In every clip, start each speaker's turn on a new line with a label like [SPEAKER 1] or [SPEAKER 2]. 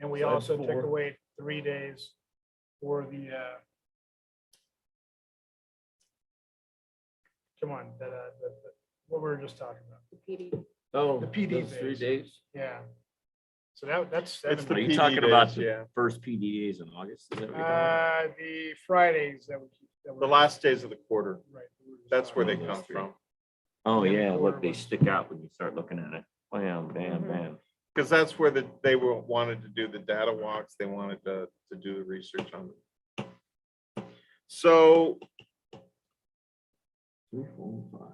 [SPEAKER 1] And we
[SPEAKER 2] So that's
[SPEAKER 1] also took
[SPEAKER 2] four.
[SPEAKER 1] away three days for the, uh, come on, that, uh, the, the, what we were just talking about,
[SPEAKER 2] Oh,
[SPEAKER 1] The PD
[SPEAKER 2] those three
[SPEAKER 1] days.
[SPEAKER 2] days.
[SPEAKER 1] yeah. So that, that's
[SPEAKER 3] It's the
[SPEAKER 1] seven.
[SPEAKER 2] Are you
[SPEAKER 3] PD
[SPEAKER 2] talking about
[SPEAKER 3] days,
[SPEAKER 2] the
[SPEAKER 3] yeah.
[SPEAKER 2] first PD days in August? Is that what you're talking about?
[SPEAKER 1] Uh, the Fridays that we. keep- that
[SPEAKER 3] The
[SPEAKER 1] we're-
[SPEAKER 3] last days of the quarter,
[SPEAKER 1] Right. that we were just
[SPEAKER 3] that's where they
[SPEAKER 1] talking about.
[SPEAKER 3] come from.
[SPEAKER 2] Oh,
[SPEAKER 1] and the
[SPEAKER 2] yeah,
[SPEAKER 1] quarter
[SPEAKER 2] look, they
[SPEAKER 1] ones.
[SPEAKER 2] stick out when you start looking at it. Bam, bam,
[SPEAKER 1] Mm-hmm.
[SPEAKER 4] Mhm.
[SPEAKER 2] bam.
[SPEAKER 3] Because that's where the, they were, wanted to do the data walks, they wanted to, to do the research on it. So
[SPEAKER 2] Three, four, five.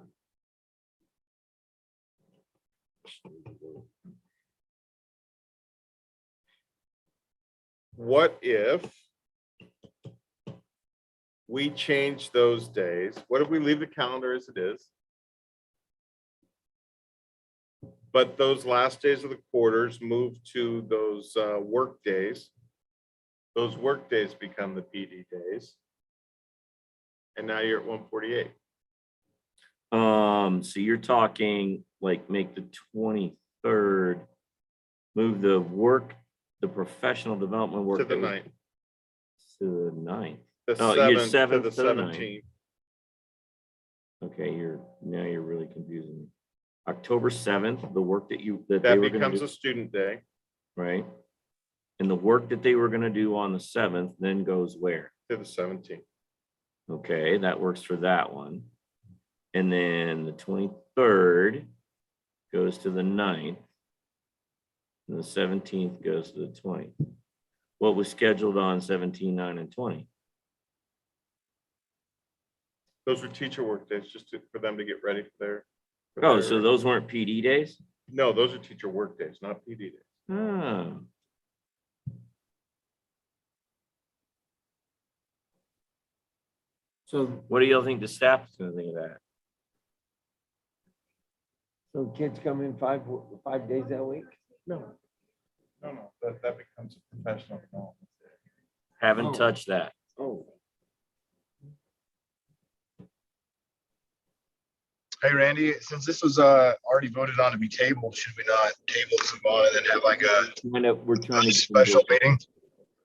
[SPEAKER 3] what if we change those days? What if we leave the calendar as it is? But those last days of the quarters move to those uh, work days. Those work days become the PD days. And now you're at one forty-eight.
[SPEAKER 2] Um, so you're talking like make the twenty-third, move the work, the professional development work.
[SPEAKER 3] To the
[SPEAKER 2] that was-
[SPEAKER 3] ninth,
[SPEAKER 2] To the ninth.
[SPEAKER 3] the
[SPEAKER 2] Oh, you're
[SPEAKER 3] seventh to
[SPEAKER 2] seventh
[SPEAKER 3] the
[SPEAKER 2] to the ninth.
[SPEAKER 3] seventeenth.
[SPEAKER 2] Okay, you're, now you're really confusing me. October seventh, the work that you, that they
[SPEAKER 3] That
[SPEAKER 2] were gonna
[SPEAKER 3] becomes
[SPEAKER 2] do,
[SPEAKER 3] a student day.
[SPEAKER 2] right? And the work that they were gonna do on the seventh then goes where?
[SPEAKER 3] to the seventeenth.
[SPEAKER 2] Okay, that works for that one. And then the twenty-third goes to the ninth. And the seventeenth goes to the twentieth. What was scheduled on seventeen, nine, and twenty?
[SPEAKER 3] Those were teacher work days, just to- for them to get ready for their. for
[SPEAKER 2] Oh, so
[SPEAKER 3] their-
[SPEAKER 2] those weren't PD days?
[SPEAKER 3] No, those are teacher work days, not PD days.
[SPEAKER 4] Hmm.
[SPEAKER 2] Oh.
[SPEAKER 5] So,
[SPEAKER 2] What do y'all think the staff is gonna think of that?
[SPEAKER 5] so kids come in five, five days that week?
[SPEAKER 1] No,
[SPEAKER 3] No, no, that, that becomes a professional development.
[SPEAKER 2] Haven't
[SPEAKER 5] Oh.
[SPEAKER 2] touched that.
[SPEAKER 5] Oh.
[SPEAKER 6] Hey Randy, since this was uh already voted on to be tabled, should we not table this one and then have like a
[SPEAKER 2] Kind of, we're trying to.
[SPEAKER 6] special meeting?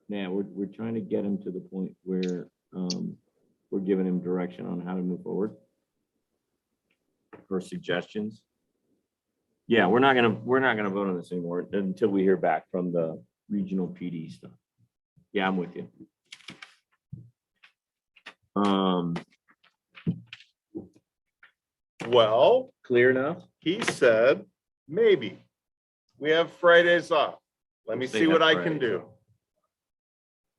[SPEAKER 2] Yeah, we're, we're trying to get him to the point where, um, we're giving him direction on how to move forward. Or suggestions. Yeah, we're not gonna, we're not gonna vote on this anymore until we hear back from the regional PD stuff. Yeah, I'm with you. Um,
[SPEAKER 3] Well,
[SPEAKER 2] clear enough?
[SPEAKER 3] he said, maybe. We have Fridays off. Let me
[SPEAKER 2] Let's
[SPEAKER 3] see
[SPEAKER 2] take
[SPEAKER 3] what
[SPEAKER 2] that
[SPEAKER 3] I can
[SPEAKER 2] Fridays
[SPEAKER 3] do.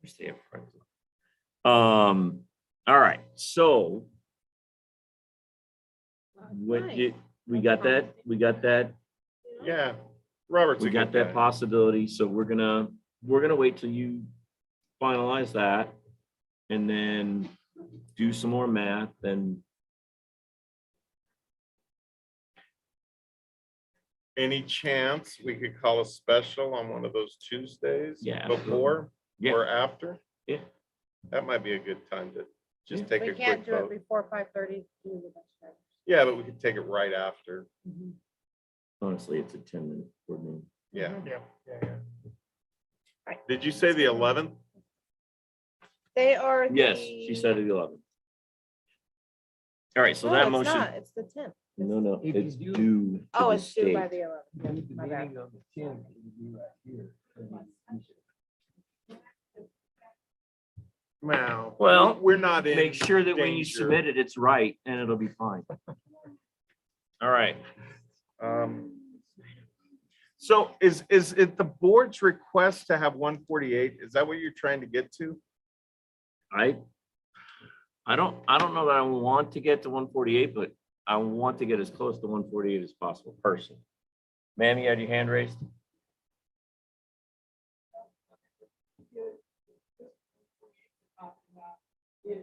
[SPEAKER 2] We stay up front. Um, all right, so what, did- we got that, we got that
[SPEAKER 3] Yeah, Robert's. a
[SPEAKER 2] We got
[SPEAKER 3] good
[SPEAKER 2] that
[SPEAKER 3] guy.
[SPEAKER 2] possibility, so we're gonna, we're gonna wait till you finalize that and then do some more math and
[SPEAKER 3] Any chance we could call a special on one of those Tuesdays?
[SPEAKER 2] Yeah, absolutely.
[SPEAKER 3] Before
[SPEAKER 2] Yeah.
[SPEAKER 3] or after?
[SPEAKER 2] Yeah.
[SPEAKER 3] That might be a good time to just
[SPEAKER 2] Yeah.
[SPEAKER 3] take a
[SPEAKER 4] We
[SPEAKER 3] quick
[SPEAKER 4] can't do it
[SPEAKER 3] vote.
[SPEAKER 4] before five thirty.
[SPEAKER 3] Yeah, but we could take it right after.
[SPEAKER 2] honestly, it's a ten minute board meeting.
[SPEAKER 3] Yeah.
[SPEAKER 1] yeah, yeah, yeah.
[SPEAKER 3] Did you say the eleventh?
[SPEAKER 4] They are.
[SPEAKER 2] Yes, she said it eleven. All right, so that motion,
[SPEAKER 4] It's the tenth.
[SPEAKER 2] no, no,
[SPEAKER 5] If you
[SPEAKER 2] it's
[SPEAKER 5] do-
[SPEAKER 2] due. to
[SPEAKER 4] Oh,
[SPEAKER 2] the
[SPEAKER 4] it's due by
[SPEAKER 2] state.
[SPEAKER 4] the
[SPEAKER 5] The
[SPEAKER 4] eleventh. My bad.
[SPEAKER 5] meeting on the tenth, it'd be right here.
[SPEAKER 3] Well.
[SPEAKER 2] Well,
[SPEAKER 3] We're not in.
[SPEAKER 2] Make sure that when you
[SPEAKER 3] danger.
[SPEAKER 2] submit it, it's right and it'll be fine. All right,
[SPEAKER 3] Um, So is, is it the board's request to have one forty-eight? Is that what you're trying to get to?
[SPEAKER 2] I, I don't, I don't know that I want to get to one forty-eight, but I want to get as close to one forty-eight as possible personally. Ma'am, you had your hand raised?
[SPEAKER 1] Yeah,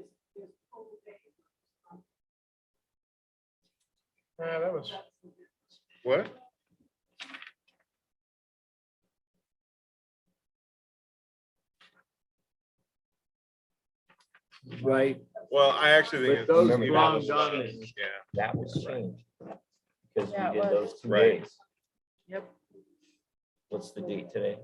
[SPEAKER 1] Uh, that was,
[SPEAKER 3] What?
[SPEAKER 5] Right,
[SPEAKER 3] Well, I actually think.
[SPEAKER 5] But
[SPEAKER 3] it's-
[SPEAKER 5] those
[SPEAKER 3] maybe that
[SPEAKER 5] long
[SPEAKER 3] was-
[SPEAKER 5] dinners.
[SPEAKER 3] Yeah.
[SPEAKER 2] That was changed. Because
[SPEAKER 4] Yeah,
[SPEAKER 2] we
[SPEAKER 4] it
[SPEAKER 2] did
[SPEAKER 4] was.
[SPEAKER 2] those two
[SPEAKER 3] Right.
[SPEAKER 2] days.
[SPEAKER 4] Yep.
[SPEAKER 2] What's the date today?